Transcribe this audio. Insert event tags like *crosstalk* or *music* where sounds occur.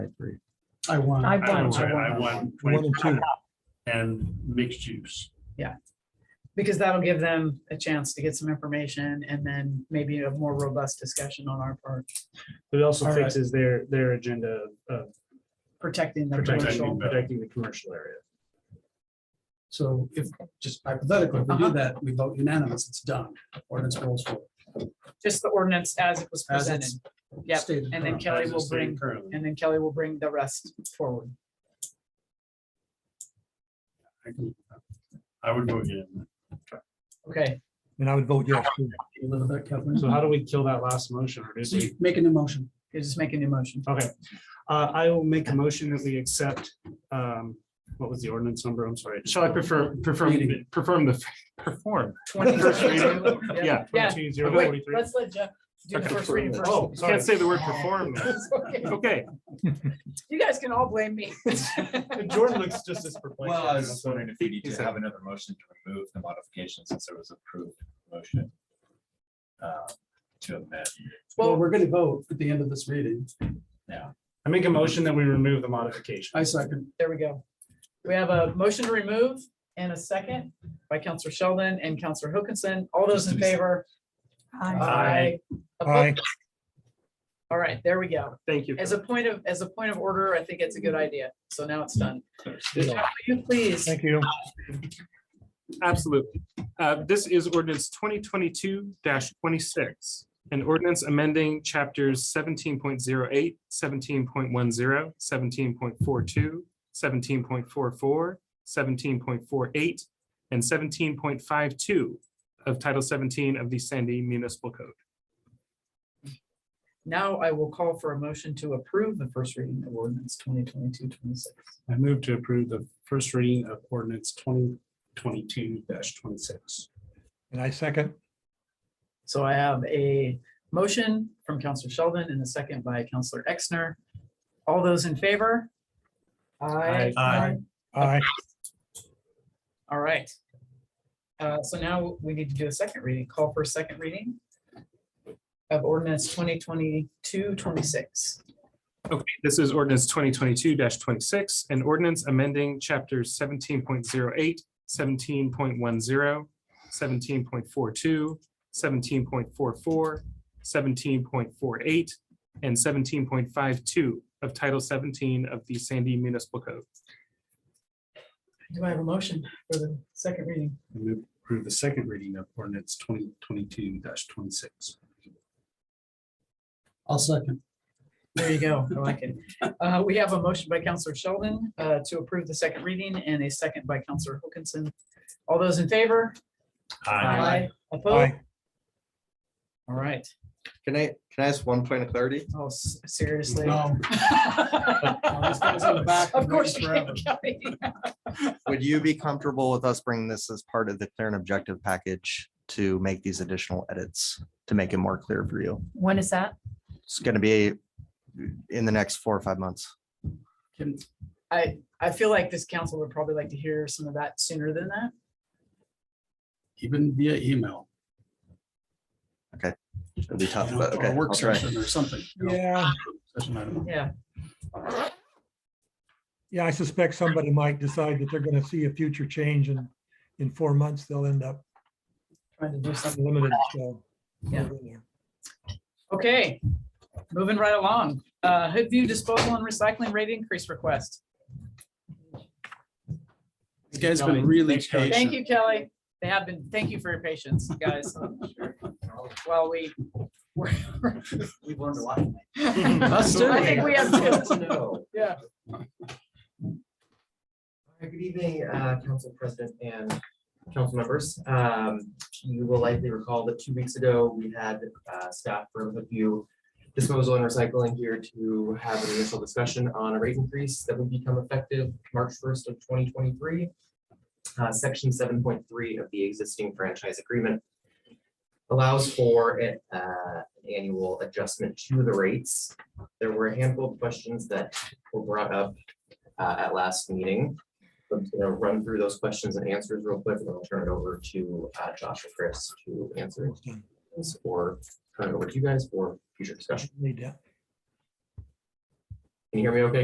I agree. I won. I I won. won, sorry, I won One and two. 20 and mixed use. Because that'll give them a chance to get some information and then maybe a more robust discussion on our part, It also All right. fixes their, their agenda of protecting the protecting, commercial. protecting the commercial area. So if, just hypothetically, if we do Uh-huh. that, we vote unanimous, it's done. Ordinance rolls forward. Just the ordinance as it was As presented. it's Yep, stated. Uh-huh. and then currently. Kelly as it will stated bring- currently. And then Kelly will bring the rest forward. I can- I would vote yes. Okay, And I would vote yes. too. You live with that, Kathleen? So how do we kill that last motion? Or does So we, you Make an emotion. you're just making the motion. okay. Uh, I will make a motion that we accept, um, what was the ordinance number? I'm sorry. Shall I prefer, prefer, Reading. perform the, perform? First reading? *laughs* Yeah. Yeah. Yeah. 22-043. Let's let Jeff do the Okay. first reading first. Oh, can't say the word *laughs* perform. now. Okay. *laughs* Okay. You guys can all blame *laughs* me. *laughs* Jordan looks just as perplexed. Well, I was just wondering if we need He to said- have another motion to remove the modification since there was approved motion. uh, To amend. Well, Well- we're going to vote at the end of this reading. I make a motion that we remove the modification. I second. There we go. We have a motion to remove and a second by Counselor Sheldon and Counselor Hookinson. All those in favor? Aye. Aye. Opposed? All right, there we go. Thank you. As a point of, as a point of order, I think it's a good idea. So now it's done. Will you please? Thank you. Absolutely. Uh, This is ordinance twenty twenty-two twenty-six. An ordinance amending chapters 17.08, 17.10, 17.42, 17.42, 17.43, 17.44, point four eight, and seventeen point five two of Title seventeen of the Sandy Municipal Code. Now I will call for a motion to approve the first reading of ordinance 2022-26. I move to approve the first reading of ordinance twenty twenty-two twenty-six. And I second. So I have a motion from Counselor Sheldon and a second by Counselor Exner. All those in favor? Aye. Aye. Aye. Aye. All right. Uh, So now we need to do a second reading, call for a second reading of ordinance 2022 26. Okay, this is ordinance twenty twenty-two twenty-six, an ordinance amending chapters 17.08, 17.10, 17.42, 17.42, 17.45, 17.44, 17.48, and seventeen point five two of Title seventeen of the Sandy Municipal Code. Do I have a motion for the second reading? I move to approve the second reading of ordinance twenty twenty-two twenty-six. I'll second. There you go. I like it. Uh, We have a motion by Counselor Sheldon uh, to approve the second reading and a second by Counselor Wilkinson. All those in favor? Opposed? Aye. All right. Can I, can I ask one point of clarity? Oh, s- seriously. *laughs* Oh, No, no, this goes in the back Of and course goes you forever. can, Kelly. Would you be comfortable with us bringing this as part of the clear and objective package to make these additional edits to make it more clear for you? When is that? It's going to be in the next four or five months. Can- I, I feel like this council would probably like to hear some of that sooner than that. Even via email. It'll be tough, you know, but Or okay. a work I'll try. session or something. you know, Yeah, session item. Yeah. yeah, I suspect somebody might decide that they're going to see a future change and in four months, they'll end up Trying to do something. limited. so. Yeah. Okay, moving right along. Uh, Hoodview Disposal and Recycling Rate Increase Request. This guy's been really Thanks, Kelly. patient. Thank you, Kelly. They have been, thank you for your patience, *laughs* guys. While we. We've learned a lot. Us too. I think we *laughs* have two. Yeah. Hi, Good evening, uh, Council President and council members. Um, You will likely recall that two weeks ago, we had uh, staff from the few disposal and recycling here to have an initial discussion on a rate increase that would become effective March first of twenty twenty-three. uh, Section seven point three of the existing franchise agreement allows for an uh, annual adjustment to the rates. There were a handful of questions that were brought up uh, at last meeting. I'm just gonna run through those questions and answers real quick, and then I'll turn it over to uh, Josh or Chris to answer this, or turn it over to you guys for future discussion. Need that. you hear me okay,